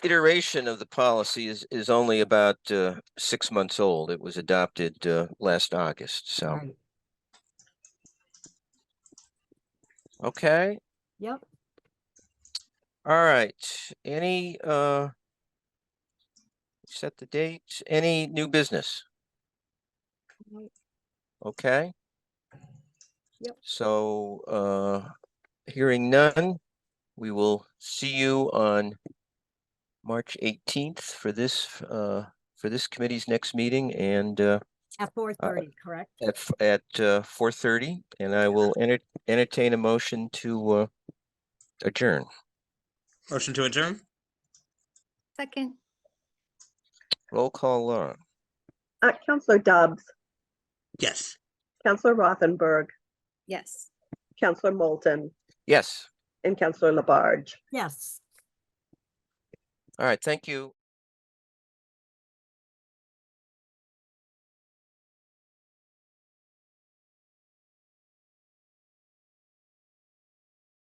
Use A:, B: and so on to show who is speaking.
A: iteration of the policy is, is only about, uh, six months old. It was adopted, uh, last August, so,
B: Right.
A: okay?
B: Yep.
A: All right, any, uh, set the date, any new business?
B: Right.
A: Okay?
B: Yep.
A: So, uh, hearing none, we will see you on March eighteenth for this, uh, for this committee's next meeting and, uh,
B: At four thirty, correct?
A: at, f- at, uh, four thirty. And I will enter, entertain a motion to, uh, adjourn.
C: Motion to adjourn?
D: Second.
A: Roll call, Laura.
E: Uh, Counselor Dobbs,
C: Yes.
E: Counselor Rothenberg,
D: Yes.
E: Counselor Moulton,
A: Yes,
E: and Counselor Labarge.
B: Yes.
A: all right, thank you.